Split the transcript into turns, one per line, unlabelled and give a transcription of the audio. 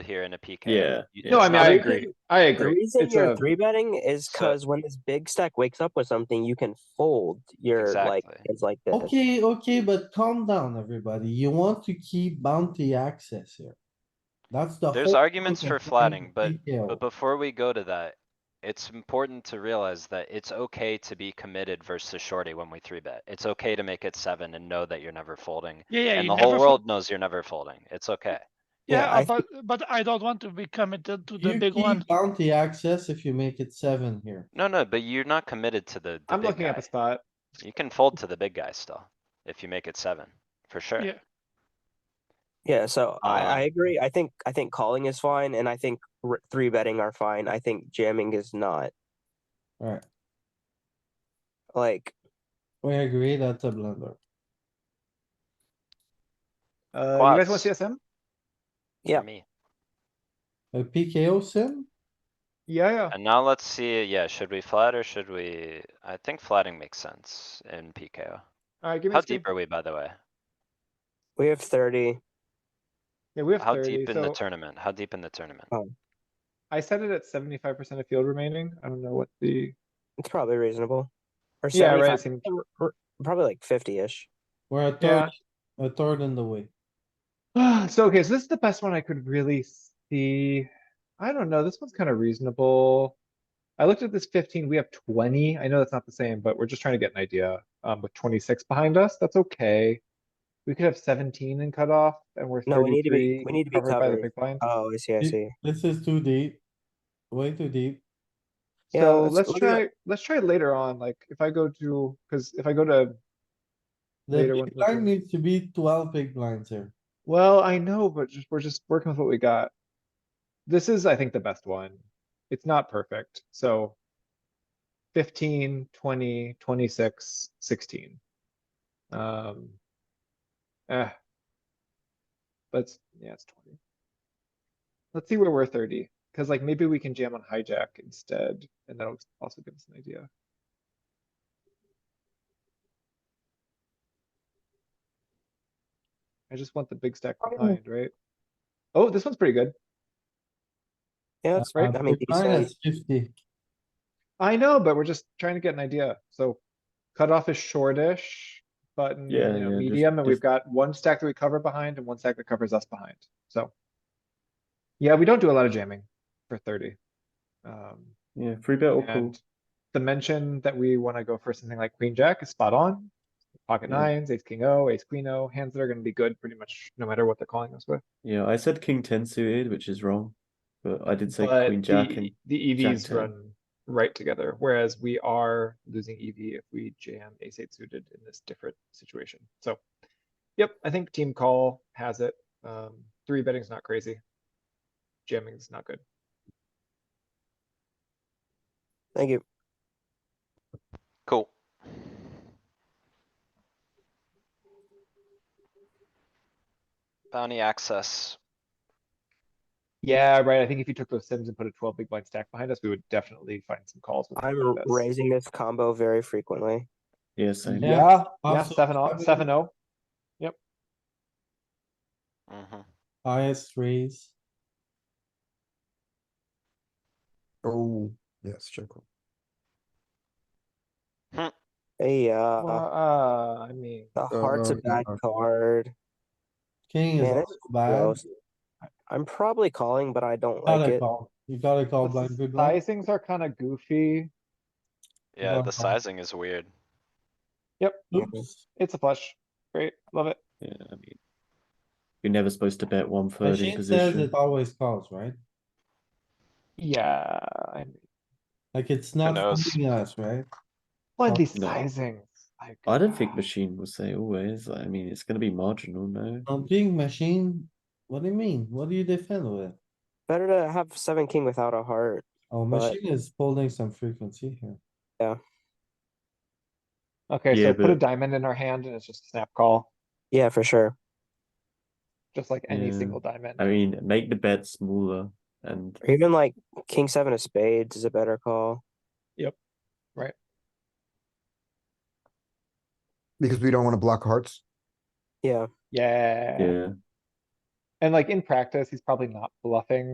here in a PK.
Yeah,
You-
yeah.
No, I mean,
I
I
agree.
agree. I
The
agree.
reason
It's
you're
a-
three betting is
So-
because when this big stack wakes up with something, you can fold your like
Exactly.
hands like this.
Okay, okay, but calm down, everybody. You want to keep bounty access here. That's the.
There's
whole
arguments
point
for
of
flatting, but,
detail.
but before we go to that, it's important to realize that it's okay to be committed versus shorty when we three bet. It's okay to make it seven and know that you're never folding.
Yeah, yeah.
And
you
the whole
never fo-
world knows you're never folding. It's okay.
Yeah,
Yeah,
I
but but I don't want to be committed to the
You
big
keep
one.
Bounty access if you make it seven here.
No, no, but you're not committed to the, the
I'm
big
looking up
guy.
a spot.
You can fold to the big guy still, if you make it seven, for sure.
Yeah.
Yeah, so I, I
Um,
agree. I think I think calling is fine, and I think r- three betting are fine. I think jamming is not.
Alright,
Like
we agree that's a blunder.
Uh, you guys want
Quads.
CSM?
for
Yeah.
me.
A PKO sim?
Yeah, yeah.
And now let's see, yeah, should we flat or should we, I think flatting makes sense in PKO.
Alright, give me
How
a skim.
deep are we, by the way?
we have thirty.
Yeah, we have
How
thirty,
deep in the
so
tournament? How deep in the tournament?
I set it at seventy-five percent of field remaining. I don't know what the,
It's probably reasonable. Or
yeah, right,
75
it seemed-
r- r- probably like fifty-ish.
We're a
Yeah.
third, a third in the way.
So, okay, so this is the best one I could really see. I don't know, this one's kind of reasonable. I looked at this fifteen, we have twenty. I know that's not the same, but we're just trying to get an idea. Um, with twenty-six behind us, that's okay. We could have seventeen in cutoff and we're
No, we need to be-
thirty-three
we need to be
covered by the
covered.
big blind.
Oh, I see. I
You-
see.
This is too deep. Way too deep.
Yeah,
So
let's
let's
look at-
try, let's try later on, like if I go to, cuz if I go to, Later
The
one's
big blind
looking.
needs to be twelve big blinds here.
well, I know, but just, we're just working with what we got. This is, I think, the best one. It's not perfect, so. 15, 20, 26, 16. Um. Eh. Let's, yeah, it's twenty. Let's see where we're thirty, cuz like maybe we can jam on hijack instead, and that'll also give us an idea. I just want the big stack
Oh.
behind, right? Oh, this one's pretty good.
Yeah, that's
Uh,
right. I mean,
big blind
decent.
is Fifty.
I know, but we're just trying to get an idea. So cutoff is shortish, button, you
Yeah,
know,
yeah, just-
medium, and
just-
we've got one stack that we cover behind and one stack that covers us behind. So. Yeah, we don't do a lot of jamming for thirty. Um,
Yeah, three bet or call.
and the mention that we wanna go for something like queen jack is spot on. Pocket
Yeah.
nines, ace king O, ace queen O, hands that are gonna be good pretty much no matter what they're calling us with.
Yeah, I said king ten suited, which is wrong, but I did say
But
queen jack
the-
and
The
jack
EVs
ten.
run right together, whereas we are losing EV if we jam ace eight suited in this different situation. So, yep, I think team call has it. Um, three betting's not crazy. Jamming's not good.
Thank you.
Cool. Bounty access.
Yeah, right. I think if you took those sims and put a twelve big blind stack behind us, we would definitely find some calls. with
I'm
like this.
raising this combo very frequently.
yeah, same.
Yeah,
Yeah, yeah,
absolutely.
seven oh, seven oh.
Mhm.
Highest raise.
Oh, yes, check. call.
Hey,
oh.
uh,
Well, Uh, I mean,
the heart's a
uh,
bad
yeah.
card.
King is
Man,
also
that's
bad.
gross. I'm probably calling, but I don't like
Gotta
it.
call. You gotta call
the
blind big blind.
sizings are kind of goofy.
Yeah,
Yeah.
the sizing is weird.
Oops.
It's a flush. Great, love it.
Yeah, I mean, you're never supposed to bet one third in
Machine says
position.
it always calls, right?
Yeah, I mean,
Like it's not
knows?
fooling us, right?
Well,
Oh,
these
no.
sizings. like,
I don't think
ah,
machine will say always. I mean, it's going to be marginal, no.
On being machine, what do you mean? What do you defend with?
Better to have seven king without a heart.
Oh,
But-
machine is holding some frequency here.
Okay,
Yeah,
so put a
but-
diamond in our hand and it's just a snap call,
Yeah, for sure.
just like any
Yeah.
single diamond.
I mean, make the bet smaller and
Or even like king seven of spades is a better call.
Because we don't wanna block hearts.
Yeah,
Yeah,
yeah,
And like in practice, he's probably not bluffing